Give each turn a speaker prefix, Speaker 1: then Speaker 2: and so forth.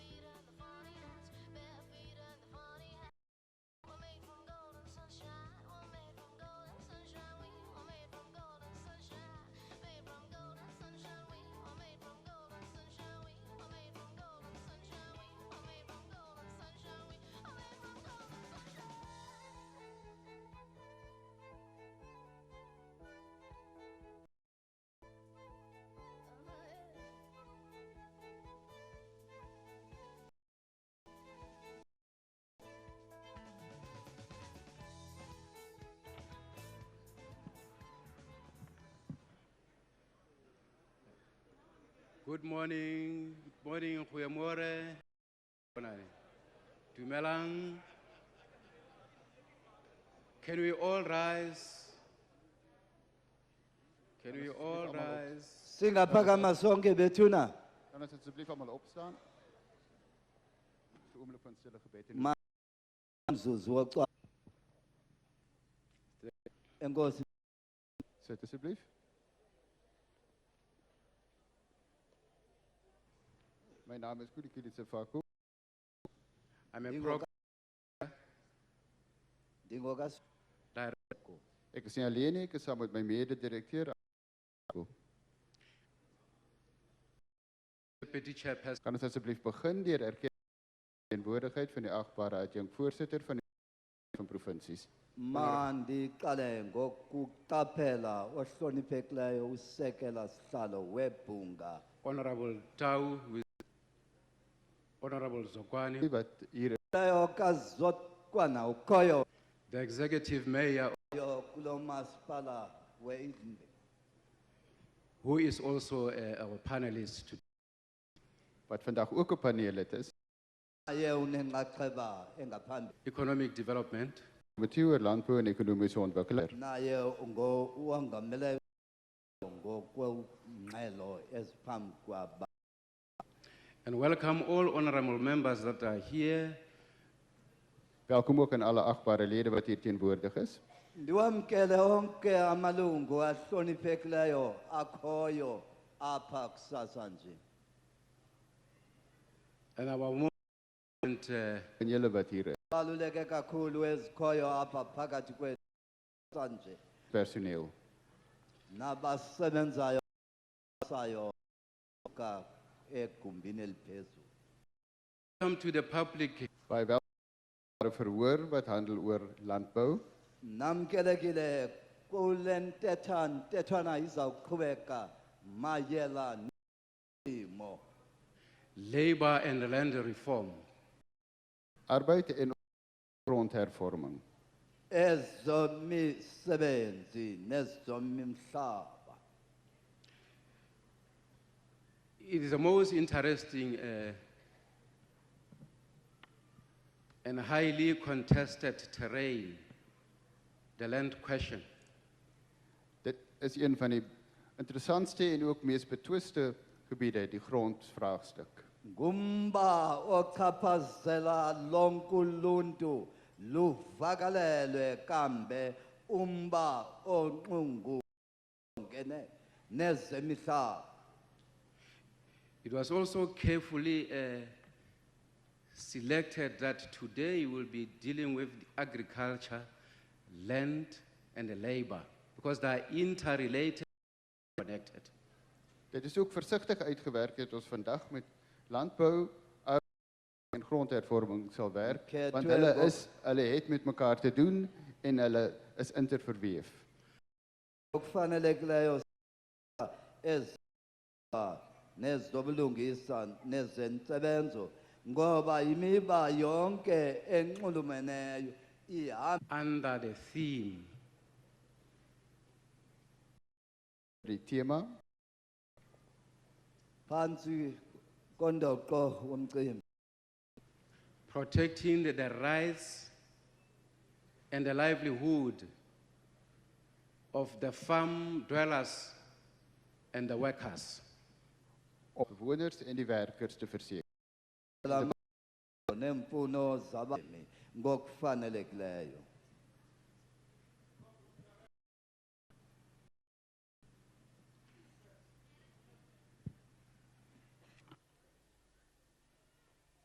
Speaker 1: Good morning, good morning, Kuyamore. Dumelang. Can we all rise? Can we all rise?
Speaker 2: Singaphakama sonke bethuna.
Speaker 3: Kan ons asseblief almal opstaan? Vir 'n oomblik van stille gebed en
Speaker 2: Ma- Mzuzu woxa. Enkosi.
Speaker 3: sit asseblief. My naam is Kulikili Sefako.
Speaker 1: I'm a
Speaker 2: Dingo
Speaker 1: program
Speaker 2: ka- Dingo kas.
Speaker 1: director.
Speaker 3: Ek is nie alleen nie, ek is saam met my mede-direkteur.
Speaker 1: Deputy Chairperson,
Speaker 3: Kan ons asseblief begin deur erkenning teenwoordigheid van die agbare adjunk voorsitter van die van provinsies.
Speaker 2: Mandiqale ngokuqaphela ohloniphekileyo usekela sihlalo webhunga.
Speaker 1: Honorable Tau, with Honorable Zokwani,
Speaker 3: Wat hier
Speaker 2: Leyo kazokwana ukhoyo
Speaker 1: the Executive Mayor,
Speaker 2: yo kulo masipala weizimbi.
Speaker 1: who is also uh, our panelist today.
Speaker 3: wat vandag ook 'n paneellid is,
Speaker 2: Aye unenxaxheba engaphambili.
Speaker 1: Economic Development,
Speaker 3: Komite oor Landbou en Ekonomiese Ontwikkeling.
Speaker 2: Naye ngo uhangamele ngokwengxelo eziphambi kwaba.
Speaker 1: and welcome all honorable members that are here.
Speaker 3: Welkom ook aan alle agbare lede wat hier teenwoordig is.
Speaker 2: Ndiwamkele onke amalungu ahloniphekileyo akhoyo apha kusasa nje.
Speaker 1: And our movement, uh,
Speaker 3: En julle wat hier is,
Speaker 2: Baluleke kakhulu ezikhoyo apha phakathi kwethu kusasa nje.
Speaker 3: personeel.
Speaker 2: Nabasebenzayo sayo ka egumbini eliphezulu.
Speaker 1: come to the public
Speaker 3: Baie welkom verhoor wat handel oor landbou.
Speaker 2: Namkelekile kule ntetha ntetwana izawuqhubeka mayela nimo.
Speaker 1: labor and land reform.
Speaker 3: Arbeid en grondhervorming.
Speaker 2: ezomisebenzi nezomimhlaba
Speaker 1: It is the most interesting uh, and highly contested terrain, the land question.
Speaker 3: Dit is een van die interessantste en ook mees betwiste gebiede, die grondvraagstuk.
Speaker 2: ngumba ochaphazela lonke uluntu luvakalelwe kambe umba onqungu ngene nezemihlaba
Speaker 1: It was also carefully uh, selected that today we'll be dealing with agriculture, land, and labor because they are interrelated, connected.
Speaker 3: Dit is ook versigtig uitgewerk dat ons vandag met landbou arbeid en grondhervorming sal werk,
Speaker 2: Ek het
Speaker 3: want
Speaker 2: twee
Speaker 3: hulle
Speaker 2: wil-
Speaker 3: is hulle het met mekaar te doen en hulle is interverweef.
Speaker 2: okufanelekileyo ez nezobulungisa nezentsebenzo ngoba imiba yonke enxulumeneyo ihamba
Speaker 1: Under the theme
Speaker 3: Die tema
Speaker 2: phantsi kondoqo womcimbi
Speaker 1: protecting the, the rights and the livelihood of the farm dwellers and the workers.
Speaker 3: om bewoners en die werkers te verseker.
Speaker 2: neemfuno zabemi ngokufanelekileyo